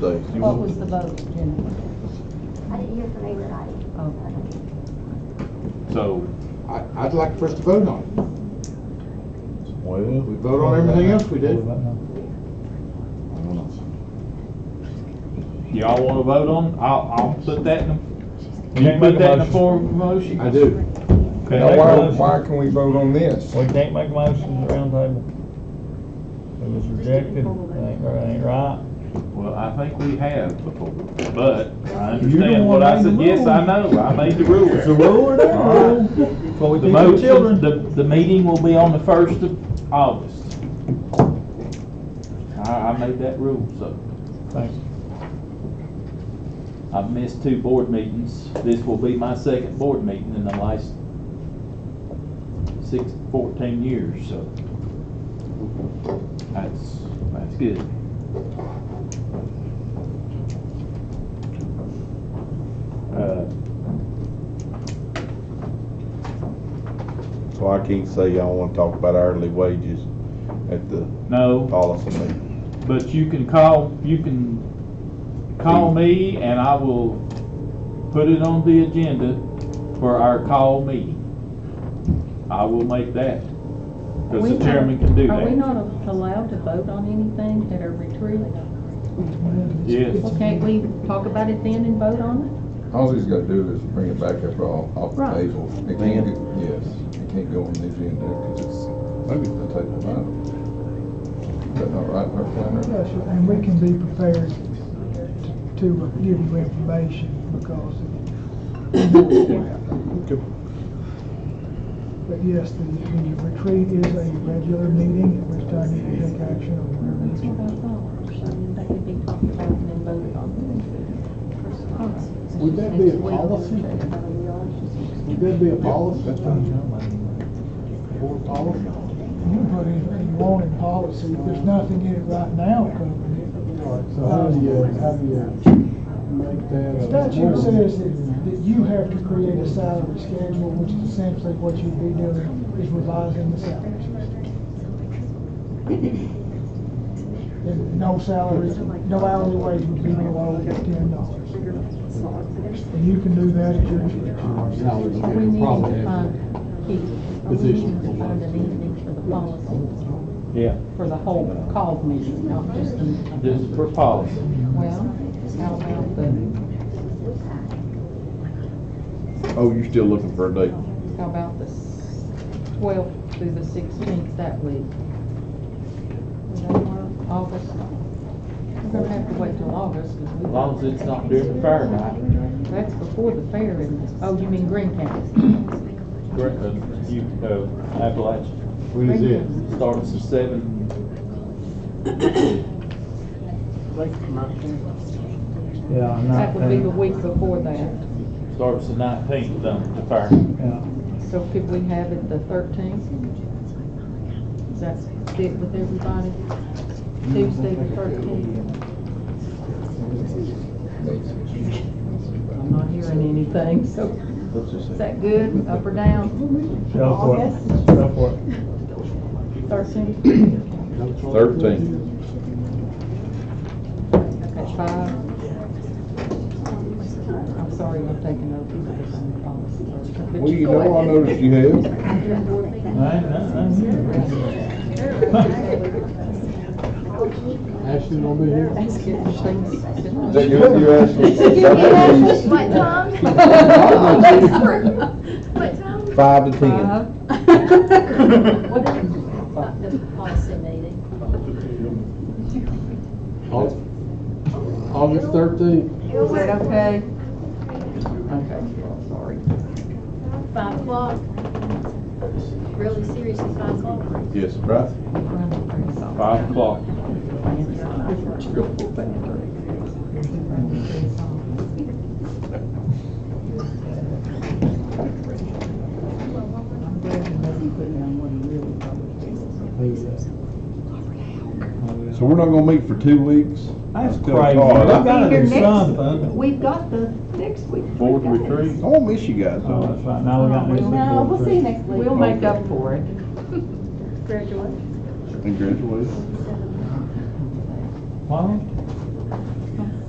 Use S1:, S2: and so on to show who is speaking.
S1: days. You
S2: What
S1: want-
S2: was the vote, Jenny?
S3: I didn't hear from everybody.
S2: Okay.
S4: So,
S5: I, I'd like for us to vote on it.
S1: Well,
S5: We vote on everything else we did.
S1: I don't know.
S4: y'all wanna vote on, I'll, I'll put that in,
S6: You
S4: you
S6: can't
S4: put
S6: make a
S4: that in the
S6: motion.
S4: form of a motion?
S5: I do.
S6: Can't
S7: Now,
S6: make a
S7: why,
S6: motion.
S7: why can we vote on this?
S6: We can't make a motion at the round table. It was rejected, it ain't, it ain't right.
S4: Well, I think we have before, but I
S6: You're the
S4: understand
S6: one
S4: what I
S6: made the
S4: said, yes,
S6: rules.
S4: I know, I made the rules.
S6: It's a rule or not
S4: All right.
S6: rule. That's what we
S4: The
S6: teach our
S4: motion,
S6: children.
S4: the, the meeting will be on the first of August. I, I made that rule, so
S6: Thank you.
S4: I've missed two board meetings. This will be my second board meeting in the last six, fourteen years, so that's, that's good. Uh,
S1: So I can't say y'all wanna talk about hourly wages at the
S4: no,
S1: policy meeting.
S4: But you can call, you can call me and I will put it on the agenda for our call meeting. I will make that, because the chairman can do
S2: Are we
S4: that.
S2: not allowed to vote on anything at our retreat?
S4: Yes,
S2: Well, can't we talk about it then and vote on
S7: All he's gotta do is bring it back after all, off the
S2: Right.
S7: table. It can't, go- yes, it can't go on the agenda because it's a table item. Is that not right, Clerk Flannery?
S8: Yes, sir, and we can be prepared to give you information because, but yes, the the retreat is a regular meeting, at which time you can take action on whatever
S2: it?
S8: you
S2: That's what I thought. So that could be talked about and then voted on.
S5: Would that be a policy? Would that be a policy? That's policy?
S8: You can put anything you want in policy, there's nothing in it right now covering it.
S9: So how do you, how do you make that? a-
S8: Statute says that, that you have to create a salary schedule, which is essentially what you'd be doing, is revising the salary schedule. And no salary, no hourly wage would be below ten dollars. And you can do that at your discretion.
S5: Now, it's
S2: We
S5: a
S2: need
S5: problem.
S2: to find, Keith, we need to find an evening for the policy,
S4: yeah,
S2: for the whole call meeting, not just the,
S4: this is for policy.
S2: well, how about the,
S1: Oh, you're still looking for a date?
S2: how about the twelfth through the sixteenth that week? Would that work? August? We're gonna have to wait till August, because we.
S4: As long as it's not during the fair night.
S2: That's before the fair, isn't it? Oh, you mean Green County?
S4: Correct, uh, You, uh, Appalachia
S5: When is it?
S4: starts at seven,
S6: Yeah, I'm not.
S2: That would be the week before that.
S4: starts the nineteenth, um, the fair.
S6: Yeah.
S2: So could we have it the thirteenth? Does that fit with everybody? Tuesday the thirteenth? I'm not hearing anything, so is that good, up or down?
S6: Go for it, go for it.
S2: Thirteenth,
S1: Thirteen.
S2: okay, five. I'm sorry, I'm taking other people's policy.
S1: Well, you know, I noticed you have.
S6: I ain't- I ain't here.
S5: Ashley gonna be here?
S1: Is that you, you asked me?
S3: What, Tom? What, Tom?
S7: Five to
S2: Five.
S3: What is, not the policy meeting?
S5: Au- August thirteenth.
S2: Is that okay? Okay, well, sorry.
S3: Five o'clock? Really seriously, five o'clock?
S1: Yes, right?
S4: Five o'clock.
S2: I'm glad you let me put down what he really probably
S6: uh,
S1: So we're not gonna meet for two weeks?
S6: That's
S1: Still
S6: crazy, we
S1: hard.
S6: gotta
S2: Your
S6: do
S2: next-
S6: something.
S2: We've got the next week.
S4: Board retreat.
S1: I won't miss you guys,
S6: Oh,
S1: though.
S6: that's right, now we got new.
S2: No, we'll see you next
S3: week.
S2: We'll make up for it.
S3: Graduate.
S1: Congratulations.
S6: What?